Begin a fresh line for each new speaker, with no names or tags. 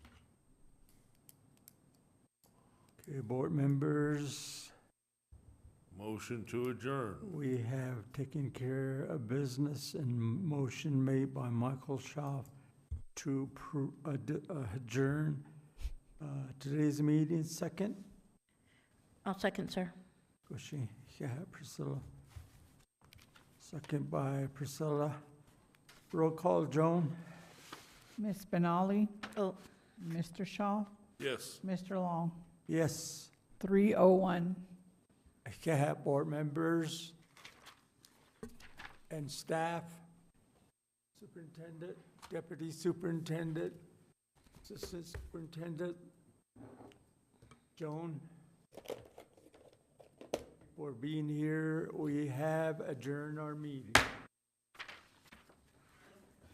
Okay, board members,
Motion to adjourn.
we have taken care of business and motion made by Michael Schaaf to pro- ad- adjourn uh, today's meeting. Second,
I'll second, sir.
was she, yeah, Priscilla. Second by Priscilla. Roll call, Joan?
Ms. Benali,
Oh,
Mr. Shaw,
Yes.
Mr. Long,
Yes.
301.
Yeah, board members and staff, superintendent, deputy superintendent, assistant superintendent, Joan, for being here. We have adjourned our meeting.